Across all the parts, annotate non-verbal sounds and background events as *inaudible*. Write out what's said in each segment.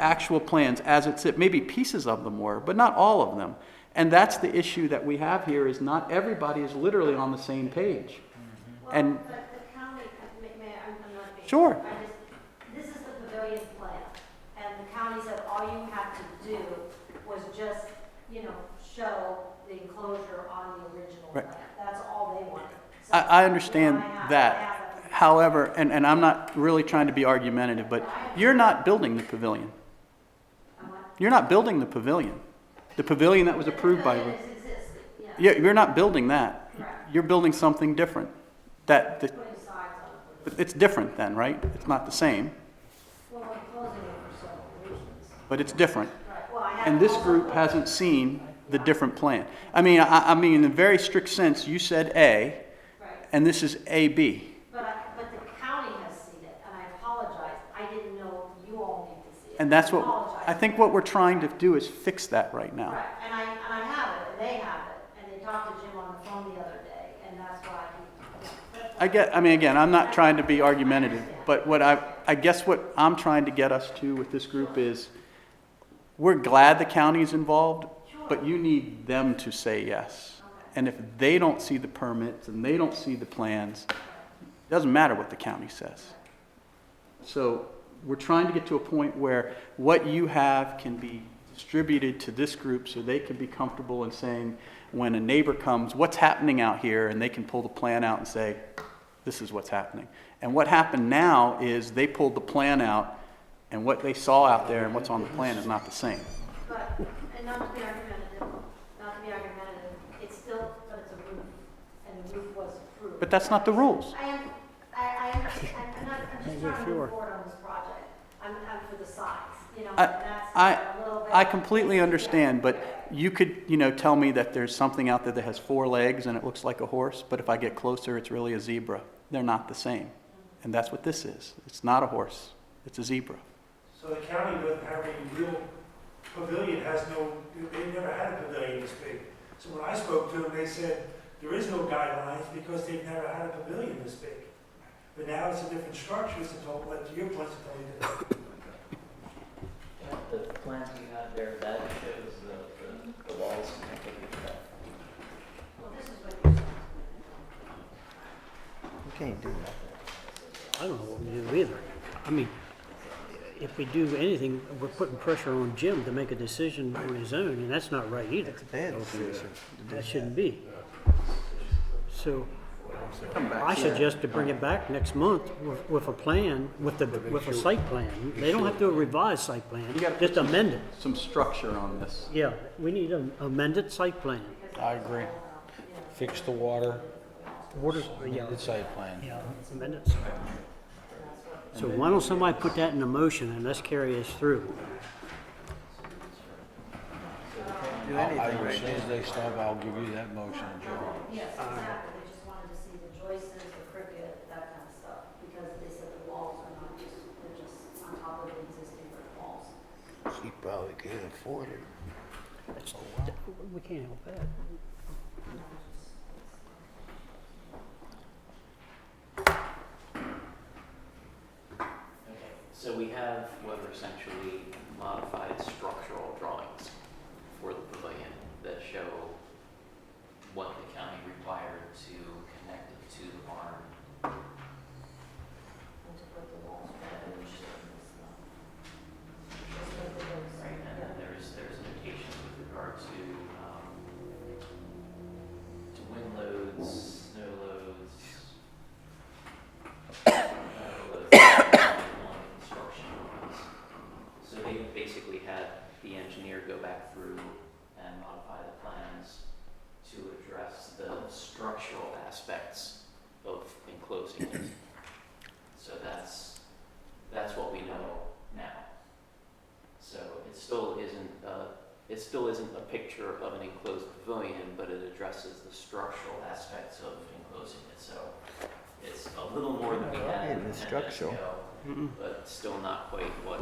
actual plans as it sit, maybe pieces of them were, but not all of them. And that's the issue that we have here, is not everybody is literally on the same page. And- Well, but the county, uh, may, may, I- I'm, I'm not being. Sure. I just, this is the pavilion plan, and the county said all you had to do was just, you know, show the enclosure on the original Right. plan. That's all they wanted. So, I, I you know, understand I have- I that. have a- However, and, and I'm not really trying to be argumentative, but you're not building the pavilion. I'm like, You're not building the pavilion. The pavilion that was the approved by, pavilion is existing, yeah. yeah, you're not building that. Correct. You're building something different. That, that- Putting sides on it. it's different then, right? It's not the same, Well, we're closing it for several reasons. but it's different. Right, well, I have. And this also- group hasn't seen the different plan. I mean, I, I mean, in a very strict sense, you said A, Right, and this is AB. but I, but the county has seen it, and I apologize. I didn't know you all need to see it. And that's I what, apologize. I think what we're trying to do is fix that right now. Right, and I, and I have it, and they have it, and they talked to Jim on the phone the other day, and that's why he. I get, I mean, again, I'm not trying to be argumentative, but what I, I guess what I'm trying to get us to with this group is, we're glad the county's involved, but you need them to say yes. And if they don't see the permits and they don't see the plans, it doesn't matter what the county says. So we're trying to get to a point where what you have can be distributed to this group so they can be comfortable in saying, when a neighbor comes, what's happening out here? And they can pull the plan out and say, this is what's happening. And what happened now is they pulled the plan out and what they saw out there and what's on the plan is not the same. But, and not to be argumentative, not to be argumentative, it's still, but it's a roof, and the roof was approved. But that's not the rules. I am, I, I, understand- I'm not, I'm just trying to move forward on this project. I'm, I'm for the size, you know, and I- that's I- a little bit. I completely Yeah. understand, but you could, you know, tell me that there's something out there that has four legs and it looks like a horse, but if I get closer, it's really a zebra. They're not the same. And that's what this is. It's not a horse. It's a zebra. So the county doesn't have any real pavilion, has no, they never had a pavilion this big. So when I spoke to them, they said, there is no guidelines because they've never had a pavilion this big. But now it's a different structure, it's a total, like your place is totally different. The plans you have there, that shows the, the- the walls connected with that. Well, this is what you're saying. You can't do that. I don't know what we do either. I mean, if we do anything, we're putting pressure on Jim to make a decision on his own, and that's not right either. It's a bad decision. That shouldn't be. So I suggest to uh, bring it back next month with, with a plan, with the, with a site plan. They don't have to do a revised site plan, You gotta put just some- amend it. Some structure on this. Yeah, we need an amended site plan. I agree. Fix the water, Water, yeah. the site plan. Yeah, amendments. So why don't somebody put that in a motion and let's carry us through? Do I- anything I- right As soon as they stop, I'll give you that motion, Joe. Yes, exactly, they just wanted to see the joists, the cricket, that kind of stuff, because they said the walls are not just, they're just on top of the existing brick walls. He probably can't afford it. That's- We can't help that. Okay, so we have what are essentially modified structural drawings for the pavilion that show what the county required to connect it to the barn. And to put the walls where they should, it's not. Just like the ones, Right, and then yeah. there's, there's notations with regard to, um, to wind loads, snow loads. *coughs* uh, loads, *coughs* lawn construction loads. So they basically had the engineer go back through and modify the plans to address the structural aspects of enclosing it. So that's, that's what we know now. So it still isn't, uh, it still isn't a picture of an enclosed pavilion, but it addresses the structural aspects of enclosing it, so it's a little more than we had Yeah, ten the minutes structural. ago, but still not quite what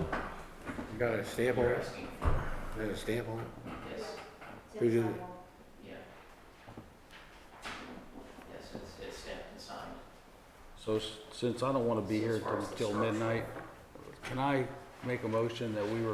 Got a stamp you're asking for. got a stamp on it? Yes, Who did it? yeah. Yes, it's, it's stamped and signed. So s- since I don't want to be here As far till- as the till structure. midnight, can I make a motion that we were